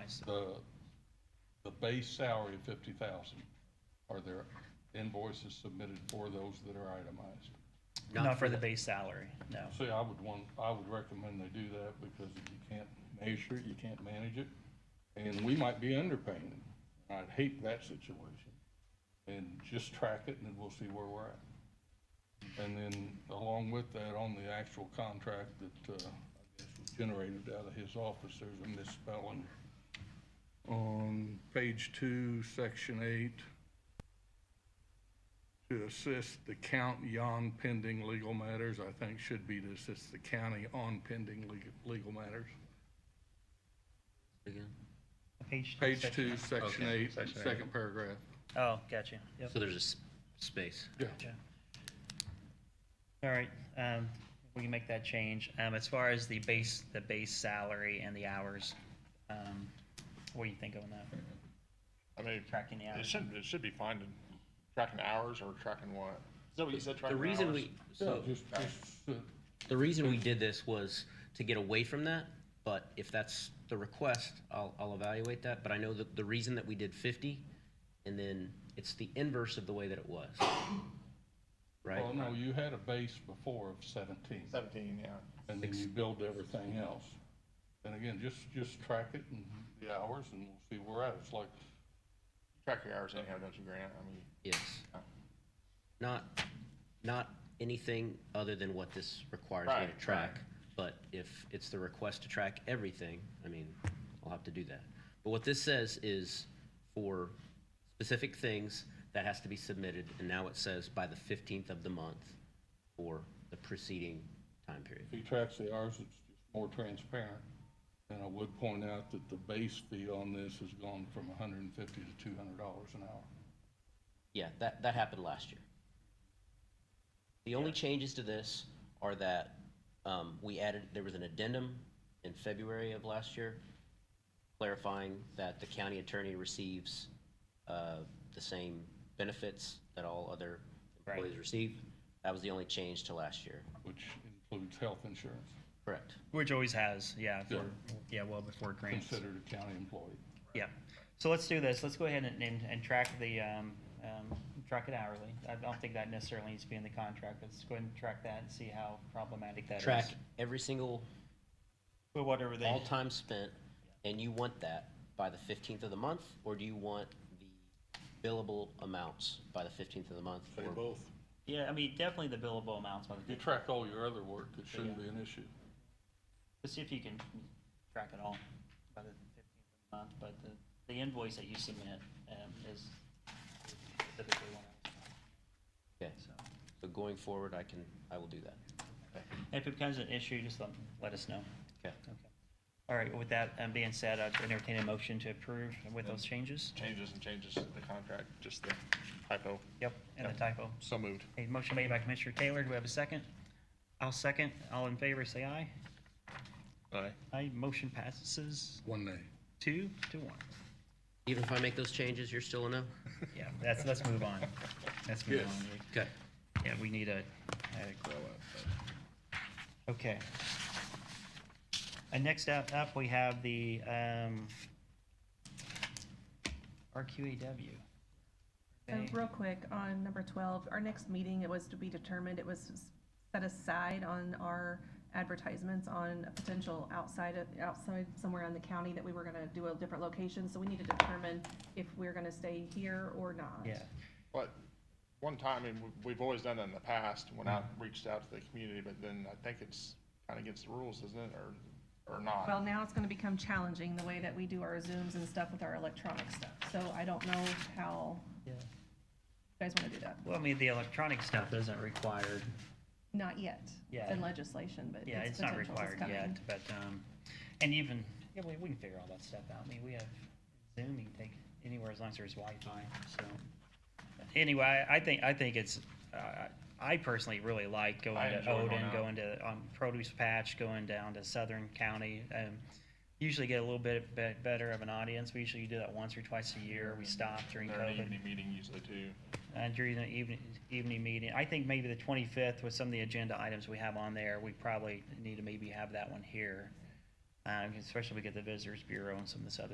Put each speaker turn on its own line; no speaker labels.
Yes.
the, uh, the base salary of fifty thousand, are there invoices submitted for those that are itemized?
Not for the base salary, no.
See, I would want, I would recommend they do that because you can't measure it, you can't manage it, and we might be underpaying. I'd hate that situation. And just track it and then we'll see where we're at. And then along with that, on the actual contract that, uh, I guess was generated out of his office, there's a misspelling. On page two, section eight to assist the county on pending legal matters, I think should be to assist the county on pending legal, legal matters.
Page two.
Page
section-
two, section
Okay,
eight,
section eight.
second paragraph.
Oh, gotcha, yep.
So there's a s- space.
Yeah.
Gotcha. All right, um, we can make that change. Um, as far as the base, the base salary and the hours, um, what do you think on that?
I mean,
Tracking the
it
hours?
should, it should be fine to tracking hours or tracking what? Is that what you said,
The
tracking hours?
reason we, so,
Just, just, uh,
the reason we did this was to get away from that, but if that's the request, I'll, I'll evaluate that. But I know that the reason that we did fifty, and then it's the inverse of the way that it was. Right?
well, no, you had a base before of seventeen,
Seventeen, yeah.
and then you build everything else. And again, just, just track it and the hours and we'll see where we're at. It's like,
Track your hours anyhow, don't you, Grant? I mean,
Yes. Not, not anything other than what this requires me
Right,
to track, but if it's the request to track everything, I mean, I'll have to do that. But what this says is for specific things that has to be submitted, and now it says by the fifteenth of the month for the preceding time period.
if he tracks the hours, it's just more transparent. And I would point out that the base fee on this has gone from hundred and fifty to two hundred dollars an hour.
Yeah, that, that happened last year. The only changes to this are that, um, we added, there was an addendum in February of last year clarifying that the county attorney receives, uh, the same benefits that all other
Right.
employees receive. That was the only change to last year,
which includes health insurance,
correct?
Which always has, yeah, for, yeah, well before grants.
considered a county employee.
Yeah, so let's do this, let's go ahead and, and, and track the, um, um, track it hourly. I don't think that necessarily needs to be in the contract, let's go ahead and track that and see how problematic that is.
Track every single,
But whatever they,
all time spent, and you want that by the fifteenth of the month? Or do you want the billable amounts by the fifteenth of the month? or-
yeah, I mean, definitely the billable amounts, by the
You track all your other work, it shouldn't be an issue.
Let's see if you can track it all by the fifteenth of the month, but the, the invoice that you submit, um, is specifically one of
Okay,
those, so.
so going forward, I can, I will do that.
If it becomes an issue, just let, let us know.
Okay.
Okay. All right, with that, um, being said, I'd entertain a motion to approve with those changes.
Changes and changes to the contract, just the typo.
Yep. And the typo.
So moved.
A motion made by Commissioner Taylor, do we have a second? I'll second, all in favor, say aye.
Aye.
Aye, motion passes
One day.
two to one.
Even if I make those changes, you're still a no?
Yeah, that's, let's move on. Let's move
Yes.
on.
Okay.
Yeah, we need a, a grow up. Okay. And next up, up we have the, um, RQAW.
So
Okay.
real quick, on number twelve, our next meeting, it was to be determined, it was set aside on our advertisements on a potential outside, of- outside somewhere in the county that we were gonna do a different location, so we need to determine if we're gonna stay here or not.
Yeah,
But one time, and we- we've always done that in the past, when I reached out to the community, but then I think it's kind of against the rules, isn't it, or, or not?
Well, now it's gonna become challenging, the way that we do our Zooms and stuff with our electronic stuff, so I don't know how
yeah.
you guys wanna do that.
Well, I mean, the electronic stuff isn't required.
Not yet,
Yeah.
it's in legislation, but
Yeah,
it's
it's not
potential, it's
required yet,
coming.
but, um, and even, yeah, we, we can figure all that stuff out. I mean, we have Zoom, you can take anywhere as long as there's Wi-Fi, so. Anyway, I I think, I think it's, uh, I personally really like going
I
to
enjoy going
Odin,
out.
going to, um, Produce Patch, going down to Southern County. Um, usually get a little bit, bit better of an audience. We usually do that once or twice a year. We stop during
They're an
COVID
evening meeting usually too.
uh, during the evening, evening meeting. I think maybe the twenty-fifth with some of the agenda items we have on there, we um, probably need to maybe have that one here. Uh, especially if we get the Visitors Bureau and some of this other